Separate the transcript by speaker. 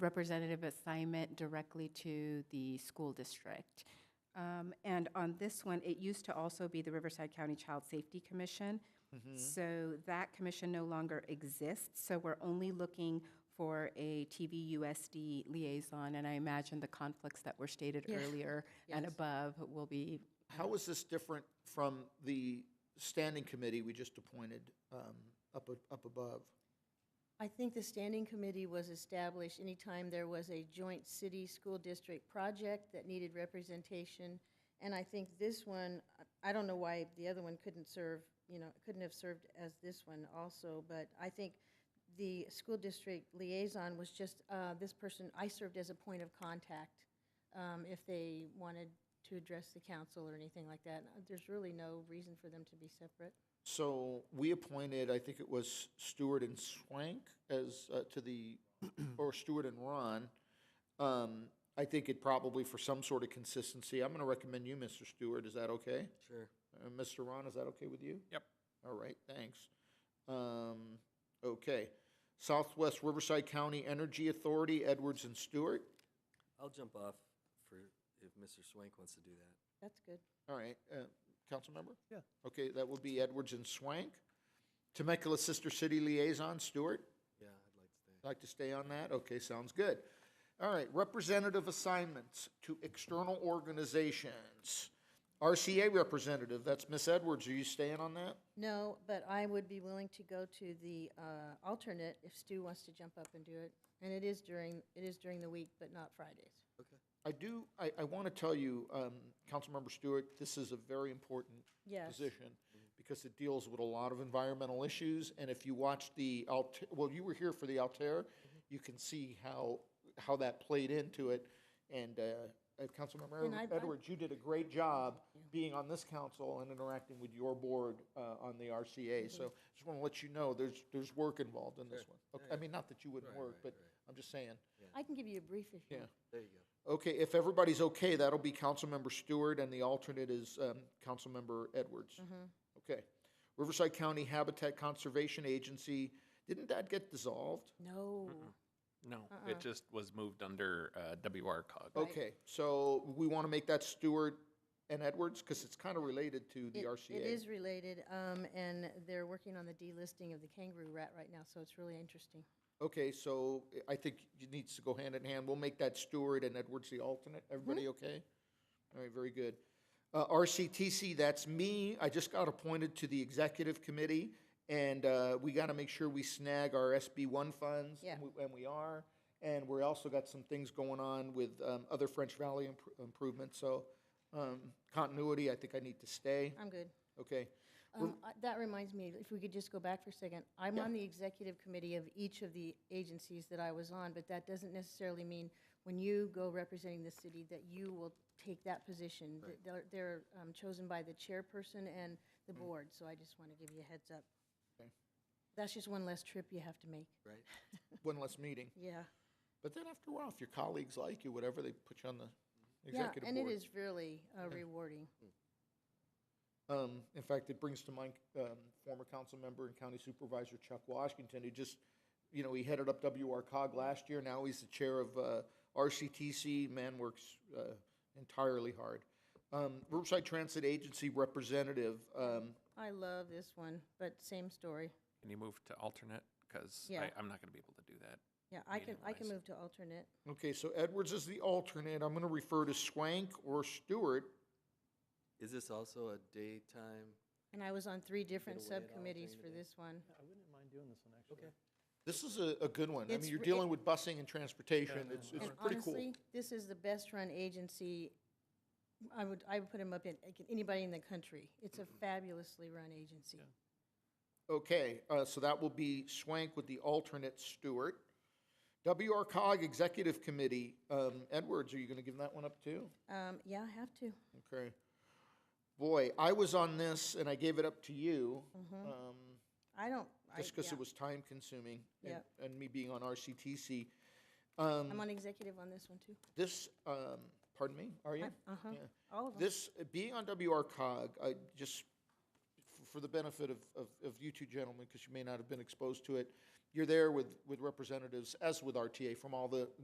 Speaker 1: representative assignment directly to the school district. Um, And on this one, it used to also be the Riverside County Child Safety Commission.
Speaker 2: Mm-hmm.
Speaker 1: So that commission no longer exists, so we're only looking for a TVUSD liaison, and I imagine the conflicts that were stated earlier and above will be
Speaker 2: How is this different from the standing committee we just appointed um, up, a- up above?
Speaker 3: I think the standing committee was established anytime there was a joint city-school district project that needed representation. And I think this one, I- I don't know why the other one couldn't serve, you know, couldn't have served as this one also, but I think the school district liaison was just, uh, this person, I served as a point of contact um, if they wanted to address the council or anything like that. There's really no reason for them to be separate.
Speaker 2: So we appointed, I think it was Stewart and Swank as, uh, to the, or Stewart and Ron. Um, I think it probably for some sort of consistency, I'm going to recommend you, Mr. Stewart, is that okay?
Speaker 4: Sure.
Speaker 2: Uh, Mr. Ron, is that okay with you?
Speaker 4: Yep.
Speaker 2: All right, thanks. Um, Okay. Southwest Riverside County Energy Authority, Edwards and Stewart.
Speaker 4: I'll jump off for, if Mr. Swank wants to do that.
Speaker 3: That's good.
Speaker 2: All right, uh, council member?
Speaker 5: Yeah.
Speaker 2: Okay, that would be Edwards and Swank. Temecula Sister City Liaison, Stewart?
Speaker 4: Yeah, I'd like to stay.
Speaker 2: Like to stay on that? Okay, sounds good. All right, representative assignments to external organizations. RCA representative, that's Miss Edwards. Are you staying on that?
Speaker 3: No, but I would be willing to go to the uh, alternate if Stu wants to jump up and do it. And it is during, it is during the week, but not Fridays.
Speaker 2: I do, I, I want to tell you, um, Councilmember Stewart, this is a very important
Speaker 3: Yes.
Speaker 2: position because it deals with a lot of environmental issues. And if you watch the Alt, well, you were here for the Altair,
Speaker 3: Mm-hmm.
Speaker 2: you can see how, how that played into it. And, uh, uh, Councilmember
Speaker 3: And I-
Speaker 2: Edward-
Speaker 3: I-
Speaker 2: Edwards, you did a great job being on this council and interacting with your board, uh, on the
Speaker 3: Mm-hmm.
Speaker 2: RCA. So just want to let you know, there's, there's work involved in this one. Okay, I mean, not that you wouldn't
Speaker 4: Right,
Speaker 2: work,
Speaker 4: right,
Speaker 2: but
Speaker 4: right.
Speaker 2: I'm just saying.
Speaker 3: I can give you a brief if
Speaker 2: Yeah.
Speaker 3: you want.
Speaker 4: There you go.
Speaker 2: Okay, if everybody's okay, that'll be Councilmember Stewart, and the alternate is um, Councilmember Edwards.
Speaker 3: Mm. Mm-hmm.
Speaker 2: Okay. Riverside County Habitat Conservation Agency, didn't that get dissolved?
Speaker 3: No.
Speaker 6: No, it just was moved under uh, WRCOG.
Speaker 2: Okay, so we want to make that Stewart and Edwards, because it's kind of related to the
Speaker 3: It-
Speaker 2: RCA.
Speaker 3: It is related, um, and they're working on the delisting of the kangaroo rat right now, so it's really interesting.
Speaker 2: Okay, so I- I think it needs to go hand in hand. We'll make that Stewart and Edwards the alternate. Everybody
Speaker 3: Mm-hmm.
Speaker 2: okay? All right, very good. Uh, RCTC, that's me. I just got appointed to the executive committee, and uh, we got to make sure we snag our SB one funds.
Speaker 3: Yeah.
Speaker 2: and we- And we are. And we're also got some things going on with um, other French Valley impr- improvements, so um, continuity, I think I need to stay.
Speaker 3: I'm good.
Speaker 2: Okay.
Speaker 3: Um, uh, That reminds me, if we could just go back for a second, I'm on the executive committee of each of the agencies that I was on, but that doesn't necessarily mean when you go representing the city that you will take that position. Th- They're, they're um, chosen by the chairperson and the board, so I just want to give you a heads up.
Speaker 2: Mm. Okay.
Speaker 3: That's just one less trip you have to make.
Speaker 4: Right?
Speaker 2: One less meeting.
Speaker 3: Yeah.
Speaker 2: But then after a while, if your colleagues like you, whatever, they put you on the
Speaker 3: Yeah,
Speaker 2: executive board.
Speaker 3: and it is really uh, rewarding.
Speaker 2: Um, in fact, it brings to mind um, former council member and county supervisor Chuck Washington, who just, you know, he headed up WRCOG last year. Now he's the chair of uh, RCTC. Man works uh, entirely hard. Um, Riverside Transit Agency representative. Um,
Speaker 3: I love this one, but same story.
Speaker 6: Can you move to alternate? Because
Speaker 3: Yeah.
Speaker 6: I'm not going to be able to do that.
Speaker 3: Yeah, I can, I can
Speaker 6: Meeting-wise.
Speaker 3: move to alternate.
Speaker 2: okay, so Edwards is the alternate. I'm going to refer to Swank or Stewart.
Speaker 4: Is this also a daytime?
Speaker 3: And I was on three different
Speaker 4: away at all
Speaker 3: subcommittees
Speaker 4: during
Speaker 3: for
Speaker 4: the day.
Speaker 3: this one.
Speaker 5: I wouldn't mind doing this one, actually.
Speaker 4: Okay.
Speaker 2: This is a, a good one. I
Speaker 3: It's
Speaker 2: mean, you're
Speaker 3: re-
Speaker 2: dealing with busing and transportation.
Speaker 5: Yeah.
Speaker 2: It's, it's
Speaker 3: And
Speaker 2: pretty cool.
Speaker 3: honestly, this is the best-run agency, I would, I would put him up in, like, anybody in the country. It's
Speaker 2: Mm-hmm.
Speaker 3: a fabulously run agency.
Speaker 2: Okay, uh, so that will be Swank with the alternate Stewart. WRCOG Executive Committee, um, Edwards, are you going to give that one up too?
Speaker 3: Um, yeah, I have to.
Speaker 2: Okay. Boy, I was on this and I gave it up to you, um,
Speaker 3: I don't, Mm-hmm. I,
Speaker 2: just because
Speaker 3: yeah.
Speaker 2: it was time consuming. and-
Speaker 3: Yep.
Speaker 2: And me being on RCTC.
Speaker 3: I'm on executive on this one, too.
Speaker 2: Um, This, um, pardon me, are you?
Speaker 3: Uh-huh,
Speaker 2: Yeah.
Speaker 3: all of them.
Speaker 2: This, uh, being on WRCOG, I just, f- for the benefit of, of, of you two gentlemen, because you may not have been exposed to it, you're there with, with representatives, as with RTA, from all the